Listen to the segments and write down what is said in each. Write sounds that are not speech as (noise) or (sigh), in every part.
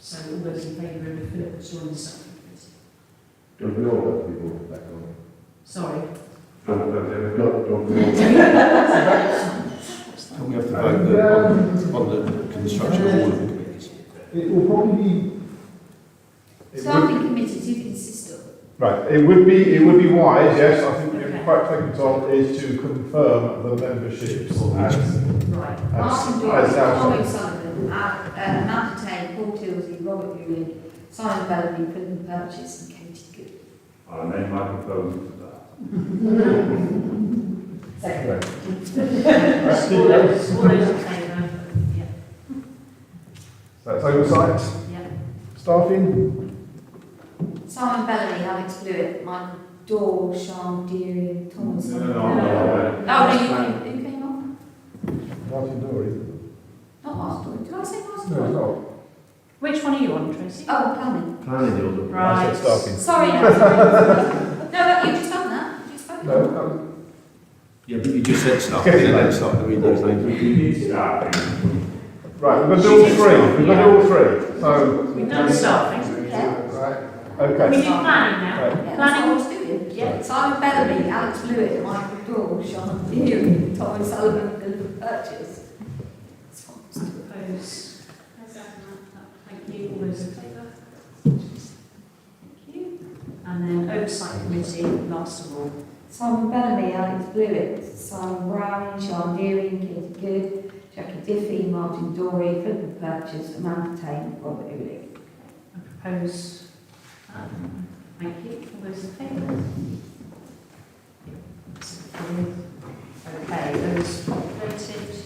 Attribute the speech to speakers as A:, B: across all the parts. A: So all those in favour of Philip joining the subcommittee, please.
B: Don't we all have people back on?
A: Sorry.
B: Don't, don't, don't, don't we all?
C: Can we have the vote the- on, on the construction of all of the committees?
B: It will probably be. it would-
D: Staffing committees, you can insist on.
B: Right, it would be, it would be wise, yes, I think you're quite correct on, is to confirm the memberships as,
D: Right.
B: As-
D: Martin
B: as
D: Dawes,
B: that-
D: Tommy Sullivan, uh, uh, Matt Tay, Paul Tilsley, Robert Ewing, Simon Bellamy, Philip Purchase and Katie Good.
E: I name my proposal to that.
D: Second.
B: right,
A: All those, all those in favour? Yeah,
B: that's oversight,
A: yeah.
B: staffing,
D: Simon Bellamy, Alex Blewett, Michael Daw, Sean Deary and Tom
E: No,
D: Sullivan.
E: no, I'm not aware.
D: Oh, no, you, you came off?
B: Martin Dory.
D: Not last one. Did I say last
B: No, it's
D: one?
B: not.
A: Which one are you on, Tracy?
D: Oh, planning.
E: Planning deals are-
A: Right.
B: That's not staffing.
D: (laughs) Sorry. no, but you just done that. You just spoke.
B: No, that
C: Yeah, but you just said stuff, and then that's not, I mean, there's
E: We
C: no.
E: need staffing.
B: was- right, we've got to do all three, we've got to do all three, so.
A: We've done staffing.
D: Yeah.
B: Right,
A: We
B: okay,
A: did planning now.
B: right,
D: Yeah, that's what I was doing.
A: Yeah.
D: Simon Bellamy, Alex Blewett, Michael Daw, Sean Deary, Tom Sullivan, Philip Purchase. That's what I was doing.
A: Oppose? Thank you, all those in favour? Thank you. And then oversight committee, last of all.
D: Simon Bellamy, Alex Blewett, Simon Brown, Sean Deary, Katie Good, Jackie Diffie, Martin Dory, Philip Purchase, Amanda Tain, Robert Ulick.
A: I propose, um, thank you, all those in favour? That's approved. Okay, those voted.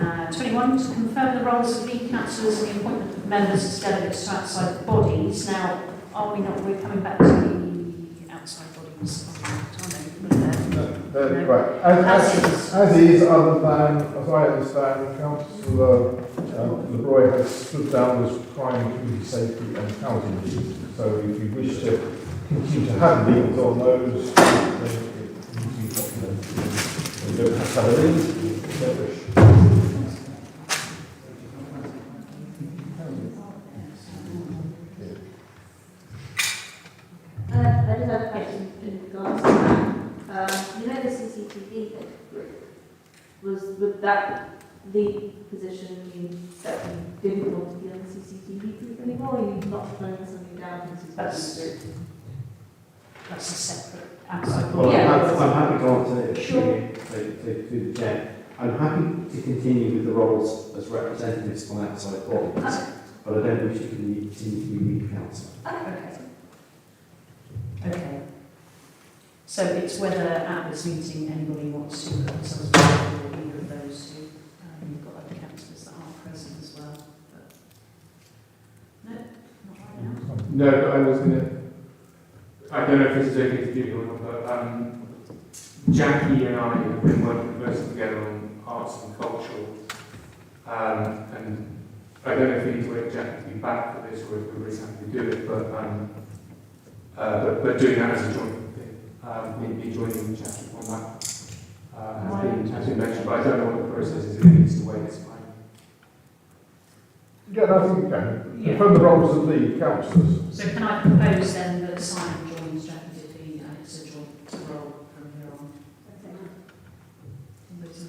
A: Uh, 21, to confirm the roles of lead councillors and the appointment of members as delegates to outside bodies. Now, are we not, we're coming back to the outside bodies contract, aren't we? We're there.
B: Uh, right, as, as,
A: As is.
B: As is, other than, as I understand, councillor um, LeBroy has stood down as prime community safety and housing lead. So if you wish to continue to have leads on those, then it needs to be documented. You don't have to have a lead, you don't wish.
F: Uh, I just have a question in regards to that. Um, you know the CCTV thing? Was, would that lead position mean that you didn't want to be on the CCTV group anymore, or you not throwing something down into the
A: That's-
F: CCTV group?
A: That's a separate outside
E: Well,
A: body.
F: Yeah.
E: I'm I'm happy to answer it.
F: Sure.
E: To, to, to the chair. I'm happy to continue with the roles as representatives on outside bodies, but I don't wish to continue to be lead council.
A: Okay. Okay. So it's whether at this meeting anybody wants to put themselves forward or either of those who, um, you've got other councillors that aren't present as well, but. No, not right now.
G: No, but I was gonna. I don't know if this is okay to do or not, but um, Jackie and I have been working closely together on arts and cultural. Um, and I don't know if we need to wait for Jackie to be back for this or if we're really happy to do it, but um, uh, but, but doing that as a joint thing, um, me, me joining Jackie on that uh, has been has been mentioned, but I don't know what the process is. If it needs to wait, it's fine.
B: Yeah, no, I think you can.
A: Yeah.
B: From the roles of lead councillors.
A: So can I propose then that Simon joins Jackie Diffie and uh, it's a joint role from here on? All those in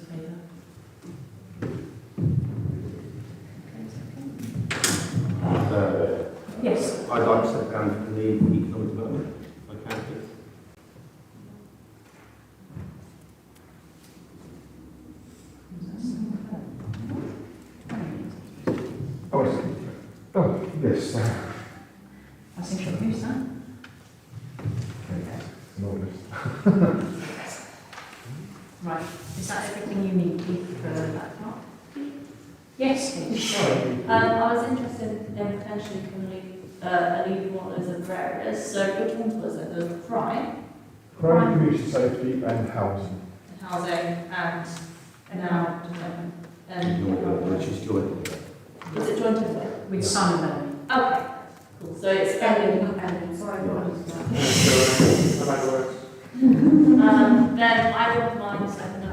A: favour? Okay,
E: Uh,
A: okay. Yes,
E: I'd like to step down from the economic development, if I can, please.
B: Oh, I see. Oh, yes, uh,
A: I think I'll use that.
B: no, yes.
A: Right, is that everything you need Keith, for that part? Yes, Keith.
F: Um, I was interested in potentially can leave, uh, a lead one as a various, so which ones was it, the prime,
B: Prime community safety and housing.
F: the housing, and now development?
E: Ignore that, which
F: And,
E: is joint.
F: was it joint development?
A: with Simon Bellamy.
F: Okay, cool, so it's spending,
D: Um, sorry, what was that?
G: So, uh, how that works.
F: Um, then I don't mind second